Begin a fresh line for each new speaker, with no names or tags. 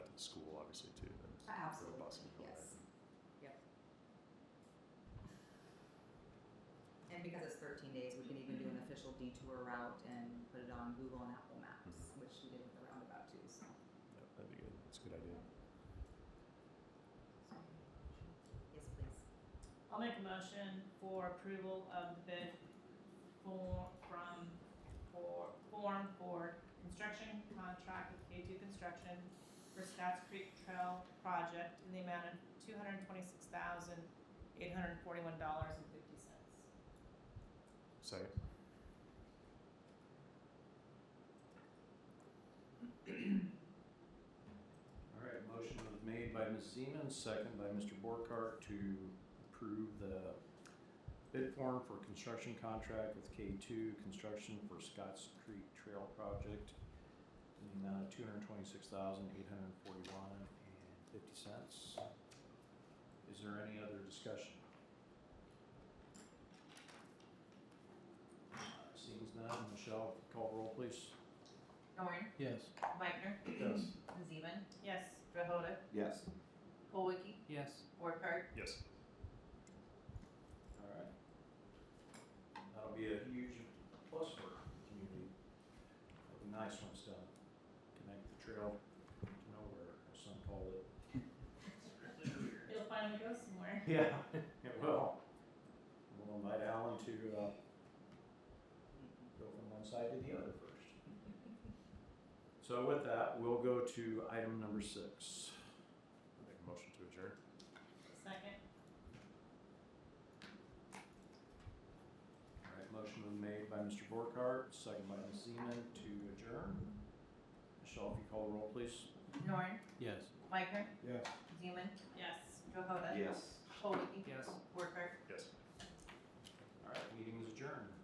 obviously too, that it's
Uh, Absolutely,
robust and
yes.
provided.
And because it's thirteen days, we can even do an official detour route and put it on Google and Apple Maps,
Mhm.
which we did with the roundabout too, so.
Yep, that'd be good, that's a good idea.
Yes, please.
I'll make a motion for approval of the bid for, from, for, form for construction contract with K two Construction for Scotts Creek Trail Project in the amount of two hundred and twenty-six thousand, eight hundred and forty-one dollars and fifty cents.
Second,
All right, motion was made by Ms. Zeman, second by Mr. Borkart to approve the bid form for construction contract with K two Construction for Scotts Creek Trail Project in the amount of two hundred twenty-six thousand, eight hundred forty-one and fifty cents. Is there any other discussion? Uh, Seems none. Michelle, call roll please.
Norn,
Yes.
Meitner,
Yes.
Zeman,
Yes,
Drohoda,
Yes.
Colwicky,
Yes.
Borkhardt,
yes,
Alright. That'll be a huge plus for the community. It'll be nice when it's done. Connect the trail to nowhere, as some call it.
it'll finally go somewhere.
Yeah, it will. We'll invite Alan to, uh,
Mm-hmm.
go from one side to the other first. So with that, we'll go to item number six.
make a motion to adjourn.
Second,
Alright, motion was made by Mr. Borkhardt, second by Ms. Zeman to adjourn. Michelle, if you call the roll, please.
Norn,
Yes.
Meitner,
Yes.
Zeman,
yes.
Drohoda,
Yes.
Colwicky,
Yes.